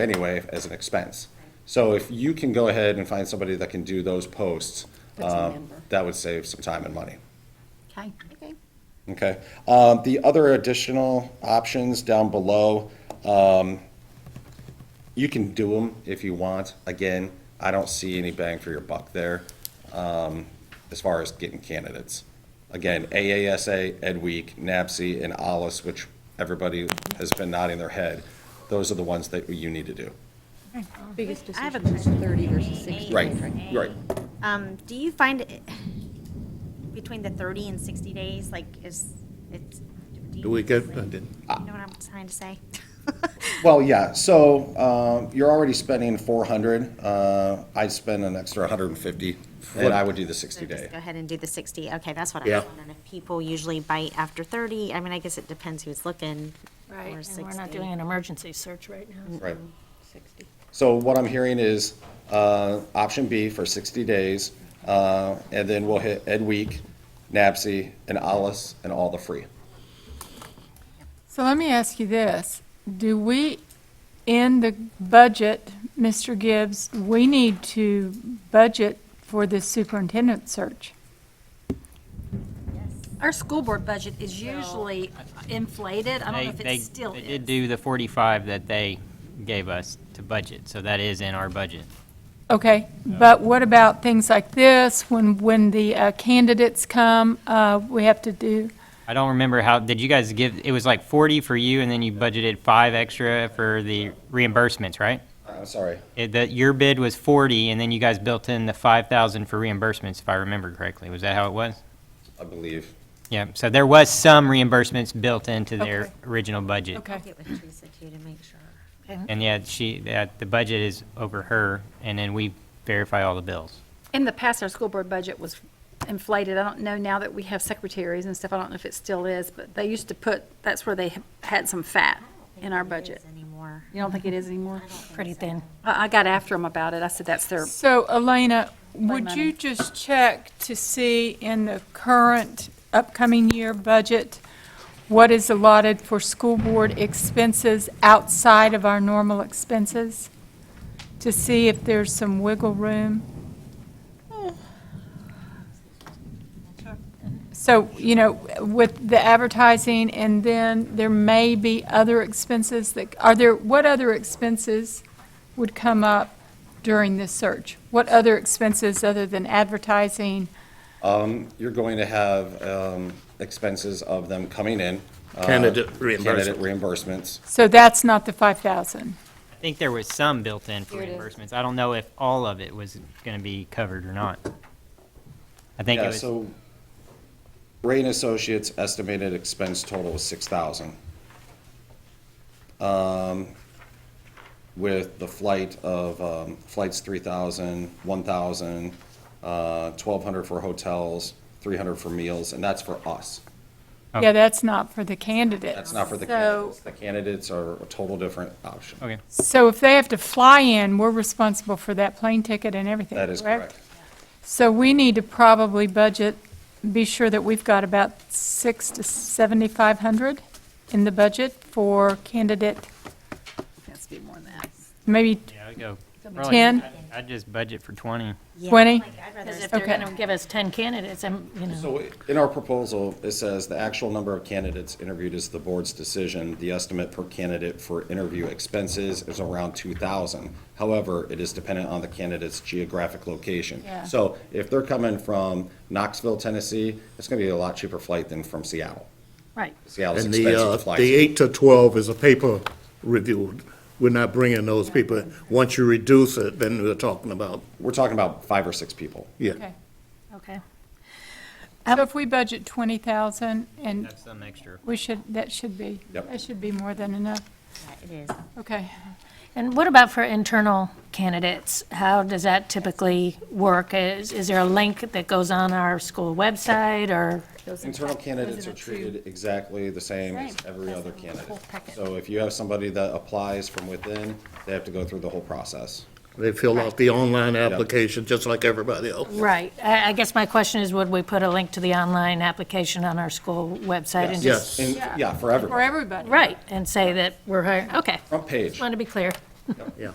anyway as an expense. So if you can go ahead and find somebody that can do those posts, That's a um, member. that would save some time and money. Okay. Okay. Um, The other additional options down below, um, you can do them if you want. Again, I don't see any bang for your buck there um, as far as getting candidates. Again, AASA, Ed Week, NAPSI, and ALIS, which everybody has been nodding their head, those are the ones that you need to do. Biggest I have a decision is 30 versus 60. Right, right. Um, do you find it- between the thirty and sixty days, like, is, it's? you- Do we get, I didn't. You know what I'm trying to say? Well, yeah, so um, you're already spending 400. uh, I'd spend an extra 150, and I would do the So just 60-day. Go ahead and do the sixty, okay, that's what I Yeah. was wondering, if people usually bite after thirty, I mean, I guess it depends who's looking. Right, Or and we're 60. not doing an emergency search right now. Right. So what I'm hearing is uh, option B for 60 days, uh, and then we'll hit Ed Week, NAPSI, and Alice, and all the free. So let me ask you this. Do we, in the budget, Mr. Gibbs, we need to budget for this superintendent search? Our school board budget is usually inflated. I don't know if They- it still They they did is. do the 45 that they gave us to budget, so that is in our budget. Okay, but what about things like this, when, when the uh, candidates come, uh, we have to do, I don't remember how, did you guys give, it was like 40 for you, and then you budgeted five extra for the reimbursements, right? I'm sorry. It- That, your bid was 40, and then you guys built in the 5,000 for reimbursements, if I remember correctly. Was that how it was? I believe. Yeah, so there was some reimbursements built into their Okay. original budget. okay. Get with Teresa too to make sure. And yet she, that, the budget is over her, and then we verify all the bills. In the past, our school board budget was inflated. I don't know now that we have secretaries and stuff, I don't know if it still is, but they used to put, that's where they had some fat in our budget. Is Anymore. You don't think it is anymore? Pretty thin. I, I got after them about it. I said that's their, So Elena, would money. you just check to see in the current upcoming year budget, what is allotted for school board expenses outside of our normal expenses? To see if there's some wiggle room? So, you know, with the advertising, and then there may be other expenses that, are there, what other expenses would come up during this search? What other expenses other than advertising? You're going to have um, expenses of them coming in. uh, Candidate Candidate reimbursement. reimbursements. So that's not the 5,000. I think there was some built in for reimbursements. I don't know if all of it was going to be covered or not. I think it Yeah, was, so Ray and Associates estimated expense total was six thousand. Um, with the flight of, um, flights three thousand, one thousand, uh, twelve hundred for hotels, three hundred for meals, and that's for us. Yeah, that's not for the candidates. That's not for the So- candidates. The candidates are a total different option. okay. So if they have to fly in, we're responsible for that plane ticket and everything, That is correct. So we need to probably budget, be sure that we've got about six to 7,500 in the budget for candidate, that's be more than that. maybe Yeah, I'd go. probably- 10, I'd- I'd just budget for 20. 20? Because if they're Okay. going to give us 10 candidates, I'm, you know, So in our proposal, it says the actual number of candidates interviewed is the board's decision. The estimate per candidate for interview expenses is around two thousand. However, it is dependent on the candidate's geographic location. Yeah. So if they're coming from Knoxville, Tennessee, it's gonna be a lot cheaper flight than from Seattle. right. Seattle's And the, expensive uh, to fly. the to. eight to twelve is a paper review. We're not bringing those people. Once you reduce it, then we're talking about, We're talking about five or six people. yeah. Okay. Okay. So if we budget 20,000, and Have some extra. we should, that should be, Yep. that should be more than enough. It is. Okay. And what about for internal candidates? How does that typically work? Is, is there a link that goes on our school website or? Internal candidates are treated exactly the same as every other candidate. So if you have somebody that applies from within, they have to go through the whole process. They fill out the online application just like everybody else. Right. I, I guess my question is, would we put a link to the online application on our school website? and Yes. just And, yeah, for everybody. For everybody. Right, and say that we're hiring, okay. Front page. Just wanted to be clear. yeah.